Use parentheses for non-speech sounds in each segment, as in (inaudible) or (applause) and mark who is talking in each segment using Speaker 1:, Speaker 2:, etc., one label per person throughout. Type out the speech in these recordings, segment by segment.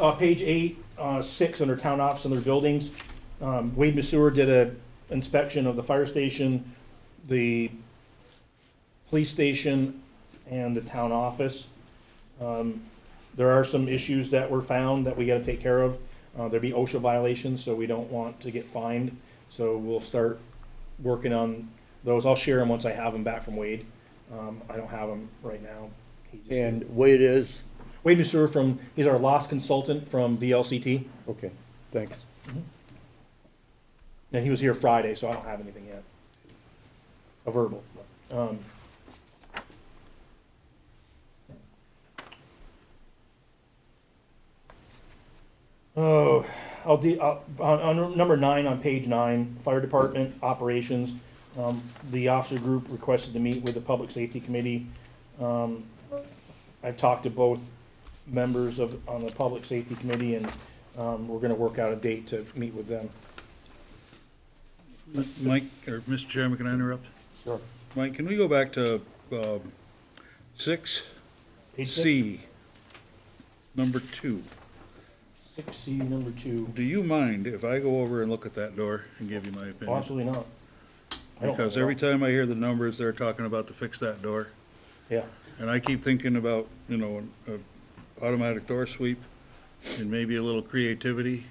Speaker 1: uh, page eight, uh, six, under town office and their buildings, um, Wade Masur did a inspection of the fire station, the police station, and the town office. Um, there are some issues that were found that we gotta take care of. Uh, there'd be OSHA violations, so we don't want to get fined, so we'll start working on those. I'll share them once I have them back from Wade. Um, I don't have them right now. He just-
Speaker 2: And Wade is,
Speaker 1: Wade Mussour from, he's our loss consultant from VLCT,
Speaker 2: okay, thanks.
Speaker 1: and he was here Friday, so I don't have anything yet. A verbal. Um, Oh, I'll de, I'll- on, on number nine, on page nine, fire department operations, um, the officer group requested to meet with the public safety committee. Um, I've talked to both members of, on the public safety committee, and, um, we're gonna work out a date to meet with them.
Speaker 3: Mike, or Mr. Chairman, can I interrupt?
Speaker 1: Sure.
Speaker 3: Mike, can we go back to um, six
Speaker 1: Page six?
Speaker 3: C, number two?
Speaker 1: Six C, number two.
Speaker 3: Do you mind if I go over and look at that door and give you my
Speaker 1: Oh,
Speaker 3: opinion?
Speaker 1: Absolutely not. I don't-
Speaker 3: Because every time I hear the numbers, they're talking about to fix that door,
Speaker 1: Yeah,
Speaker 3: and I keep thinking about, you know, an a automatic door sweep and maybe a little creativity.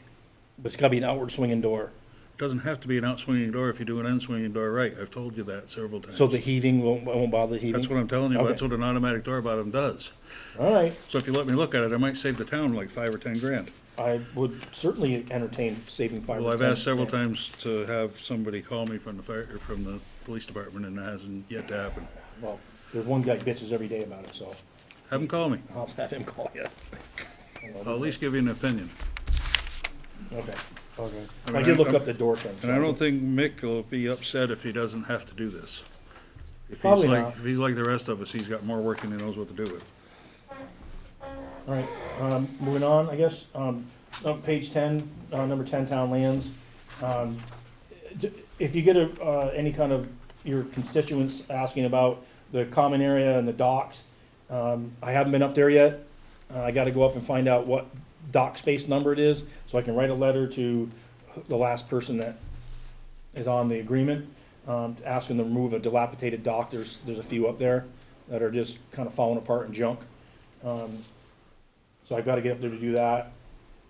Speaker 1: but it's gotta be an outward swinging door,
Speaker 3: Doesn't have to be an outswinging door if you do an in-swinging door right. I've told you that several times.
Speaker 1: so the heaving won't, won't bother the
Speaker 3: That's what
Speaker 1: heaving.
Speaker 3: I'm telling you, that's
Speaker 1: Okay.
Speaker 3: what an automatic door bottom does.
Speaker 1: All right,
Speaker 3: So if you let me look at it, I might save the town like five or ten grand.
Speaker 1: I would certainly entertain saving five.
Speaker 3: Well,
Speaker 1: or
Speaker 3: I've
Speaker 1: 10.
Speaker 3: asked several times to have somebody call me from the fire, or from the police department, and it hasn't yet to happen.
Speaker 1: Well, there's one guy bitches every day about it, so
Speaker 3: Have them call me.
Speaker 1: I'll have him call you.
Speaker 3: I'll at least give you an opinion.
Speaker 1: Okay.
Speaker 2: Okay.
Speaker 3: I mean,
Speaker 1: I did look
Speaker 3: I'm-
Speaker 1: up the door thing.
Speaker 3: And
Speaker 1: so-
Speaker 3: I don't think Mick will be upset if he doesn't have to do this. If he's
Speaker 1: Probably
Speaker 3: like-
Speaker 1: not.
Speaker 3: If he's like the rest of us, he's got more work and he knows what to do with.
Speaker 1: All right, um, moving on, I guess, um, on page ten, uh, number ten, town lands. Um, d- If you get a, uh, any kind of, your constituents asking about the common area and the docks, um, I haven't been up there yet. Uh, I gotta go up and find out what dock space number it is, so I can write a letter to the last person that is on the agreement, um, asking them to remove a dilapidated dock, there's, there's a few up there that are just kinda falling apart and junk. Um, so I've got to get up there to do that.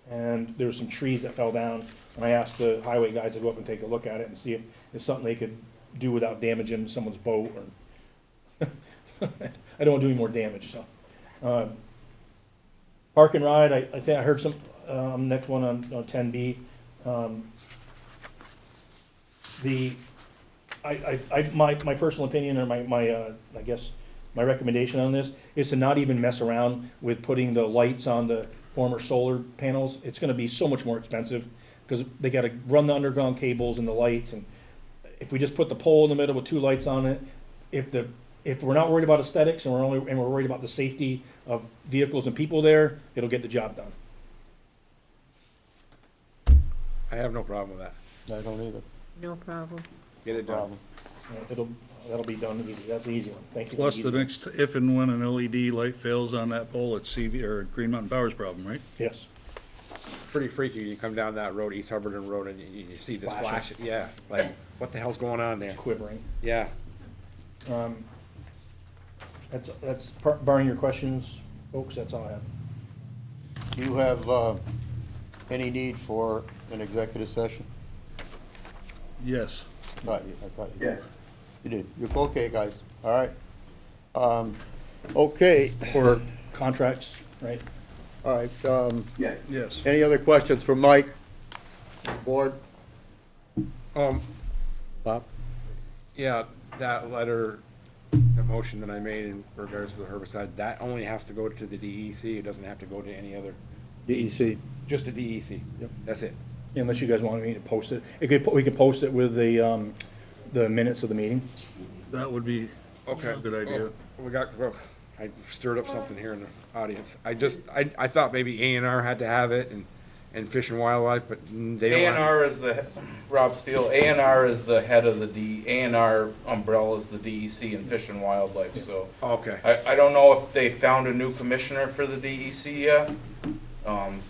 Speaker 1: And there's some trees that fell down, and I asked the highway guys to go up and take a look at it and see if it's something they could do without damaging someone's boat or. (laughs) I don't want to do any more damage, so. um, Park and ride, I, I think I heard some, um, next one on, on ten B. Um, The, I, I, I, my, my personal opinion or my, my, uh, I guess, my recommendation on this is to not even mess around with putting the lights on the former solar panels. It's gonna be so much more expensive, because they gotta run the underground cables and the lights, and if we just put the pole in the middle with two lights on it, if the, if we're not worried about aesthetics and we're only, and we're worried about the safety of vehicles and people there, it'll get the job done.
Speaker 4: I have no problem with that.
Speaker 2: I don't either.
Speaker 5: No problem.
Speaker 4: Get it done.
Speaker 1: Uh, It'll, that'll be done easy, that's the easy one, thank you. for
Speaker 3: Plus,
Speaker 1: the
Speaker 3: the
Speaker 1: easy one.
Speaker 3: next, if and when an LED light fails on that pole, it's CV, or Green Mountain Power's problem, right?
Speaker 1: Yes,
Speaker 4: Pretty freaky, you come down that road, East Hubbardton Road, and you, you see this
Speaker 1: Flashing.
Speaker 4: flash, yeah, like, what the hell's going on there?
Speaker 1: quivering.
Speaker 4: Yeah,
Speaker 1: That's, that's, par- barring your questions, folks, that's all I have.
Speaker 2: Do you have uh, any need for an executive session?
Speaker 3: Yes.
Speaker 2: I thought you, I thought you did. You did. You're okay, guys, all right. Um, Okay,
Speaker 1: For contracts, right?
Speaker 2: all right. um,
Speaker 3: Yes.
Speaker 2: Any other questions for Mike? Board?
Speaker 4: um,
Speaker 2: Bob?
Speaker 4: yeah, that letter, the motion that I made in regards to the herbicide, that only has to go to the DEC, it doesn't have to go to any other,
Speaker 2: DEC.
Speaker 4: just the DEC.
Speaker 2: Yep.
Speaker 4: That's it.
Speaker 1: Unless you guys want me to post it. It could, we could post it with the, um, the minutes of the meeting.
Speaker 3: That would be a good idea.
Speaker 4: Oh, We got, well, I stirred up something here in the audience. I just, I, I thought maybe A and R had to have it and, and Fish and Wildlife, but mm, they don't.
Speaker 6: A
Speaker 4: have-
Speaker 6: and R is the, Rob Steele, A and R is the head of the D, A and R umbrella is the DEC and Fish and Wildlife, so.
Speaker 4: Okay.
Speaker 6: E I, I don't know if they found a new commissioner for the DEC yet. Um,